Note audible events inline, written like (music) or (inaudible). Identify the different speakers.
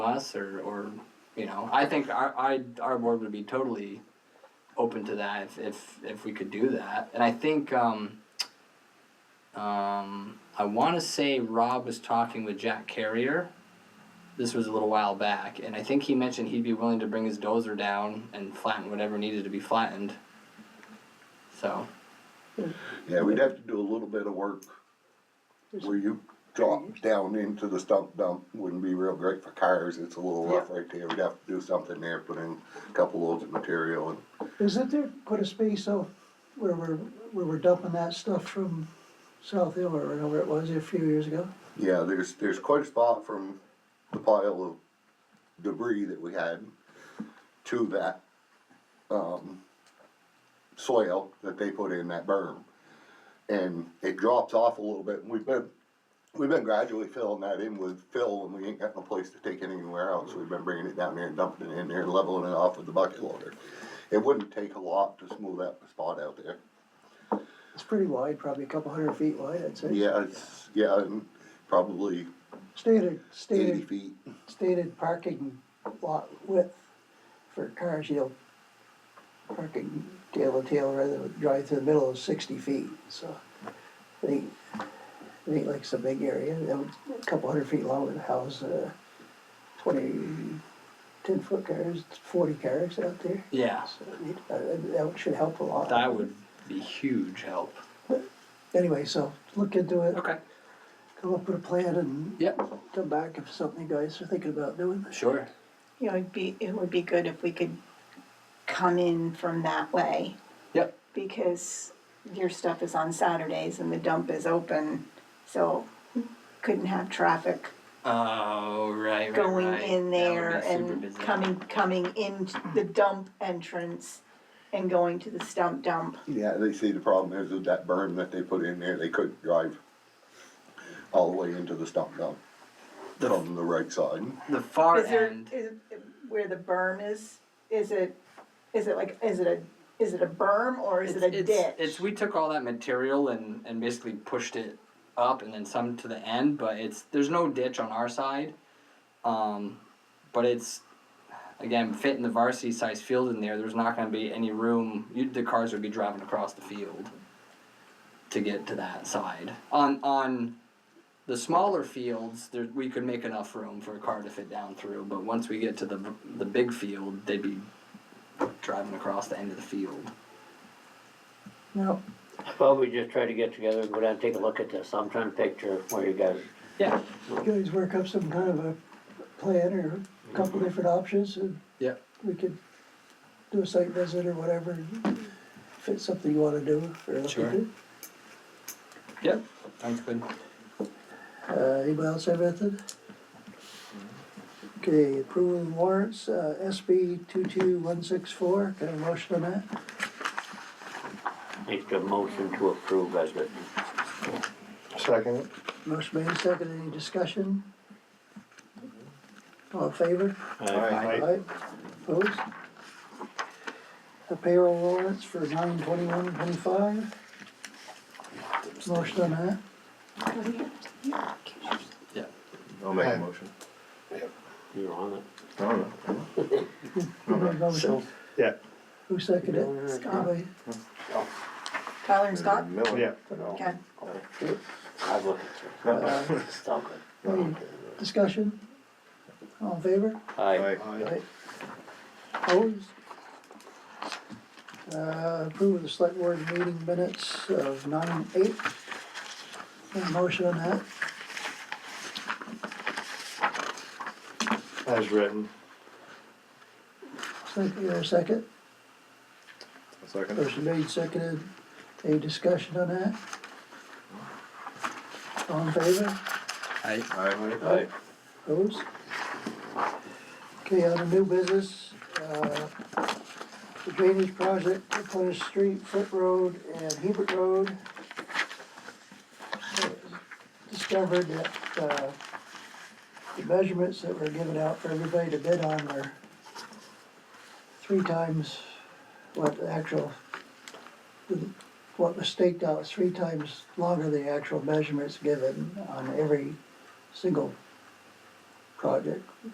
Speaker 1: us or, or, you know, I think our, I, our board would be totally open to that if, if, if we could do that. And I think, um, um, I want to say Rob was talking with Jack Carrier. This was a little while back, and I think he mentioned he'd be willing to bring his dozer down and flatten whatever needed to be flattened. So,
Speaker 2: Yeah, we'd have to do a little bit of work where you drop down into the stump dump, wouldn't be real great for cars, it's a little rough right there, we'd have to do something there, put in a couple loads of material and.
Speaker 3: Isn't there quite a space off where we're, where we're dumping that stuff from South Hill or wherever it was a few years ago?
Speaker 2: Yeah, there's, there's quite a spot from the pile of debris that we had to that, um, soil that they put in that berm. And it drops off a little bit, and we've been, we've been gradually filling that in with fill, and we ain't got no place to take it anywhere else, we've been bringing it down there and dumping it in there and leveling it off with the bucket loader. It wouldn't take a lot to smooth that spot out there.
Speaker 3: It's pretty wide, probably a couple hundred feet wide, I'd say.
Speaker 2: Yeah, it's, yeah, and probably
Speaker 3: Stated,
Speaker 2: eighty
Speaker 3: stated,
Speaker 2: feet.
Speaker 3: stated parking lot width for cars, you know, parking tail to tail rather than drive through the middle is sixty feet, so. I think, I think like it's a big area, that would, a couple hundred feet long would house, uh, twenty, ten foot cars, forty cars out there.
Speaker 1: yeah,
Speaker 3: So, I mean, uh, That should help a lot.
Speaker 1: that would be huge help.
Speaker 3: Anyway, so look into it,
Speaker 1: Okay.
Speaker 3: come up with a plan and
Speaker 1: Yep,
Speaker 3: come back if something you guys are thinking about doing.
Speaker 1: sure.
Speaker 4: You know, it'd be, it would be good if we could come in from that way,
Speaker 1: Yep.
Speaker 4: because your stuff is on Saturdays and the dump is open, so couldn't have traffic
Speaker 1: Oh, right, right,
Speaker 4: going
Speaker 1: right.
Speaker 4: in
Speaker 1: That would
Speaker 4: there
Speaker 1: be super
Speaker 4: and
Speaker 1: busy.
Speaker 4: coming, coming in the dump entrance and going to the stump dump.
Speaker 2: Yeah, they see the problem is with that berm that they put in there, they couldn't drive all the way into the stump dump from the right side.
Speaker 1: The far
Speaker 4: Is there,
Speaker 1: end,
Speaker 4: is, where the berm is, is it, is it like, is it a, is it a berm or is it a
Speaker 1: it's, it's,
Speaker 4: ditch?
Speaker 1: it's, we took all that material and, and basically pushed it up and then some to the end, but it's, there's no ditch on our side. Um, but it's, again, fitting the varsity size field in there, there's not gonna be any room, you, the cars would be driving across the field to get to that side. On, on the smaller fields, there, we could make enough room for a car to fit down through, but once we get to the, the big field, they'd be driving across the end of the field.
Speaker 3: No,
Speaker 5: Well, we just try to get together and go down and take a look at this, I'm trying to picture where you guys,
Speaker 1: Yeah.
Speaker 3: you guys work up some kind of a plan or a couple different options and
Speaker 1: Yeah.
Speaker 3: we could do a site visit or whatever. If it's something you wanna do or look
Speaker 1: Sure.
Speaker 3: into.
Speaker 1: Yep. Sounds good.
Speaker 3: Uh, anybody else have anything? Okay, approval of warrants, uh, SB two-two-one-six-four, can I have a motion on that?
Speaker 5: make the motion to approve as written.
Speaker 6: Second.
Speaker 3: Motion made, second, any discussion? All in favor? Aye. Opposed? The payroll warrants for nine twenty-one twenty-five. Motion on that,
Speaker 1: Yeah.
Speaker 6: I'll make a motion.
Speaker 5: You're on it.
Speaker 6: I don't know.
Speaker 3: Who made the motion?
Speaker 6: Yeah.
Speaker 3: Who seconded it?
Speaker 4: Scott.
Speaker 3: Anybody?
Speaker 4: Tyler and Scott?
Speaker 2: Mm,
Speaker 6: Miller. Yeah.
Speaker 4: Okay.
Speaker 5: I've looked at
Speaker 3: Uh,
Speaker 5: it, (laughs) it's all good.
Speaker 3: any Discussion? All in favor?
Speaker 5: Aye.
Speaker 3: Aye. Opposed? Uh, approve of the select board meeting minutes of nine eight. Any motion on that?
Speaker 6: As written.
Speaker 3: Second, or second?
Speaker 6: Second.
Speaker 3: Motion made, seconded. Any discussion on that? All in favor?
Speaker 1: I
Speaker 6: Aye.
Speaker 3: Opposed? Okay, on the new business, uh, the drainage project, Plymouth Street, Foot Road, and Hebert Road. Discovered that, uh, the measurements that were given out for everybody to bid on were three times what the actual, what was staked out, was three times longer than the actual measurements given on every single project.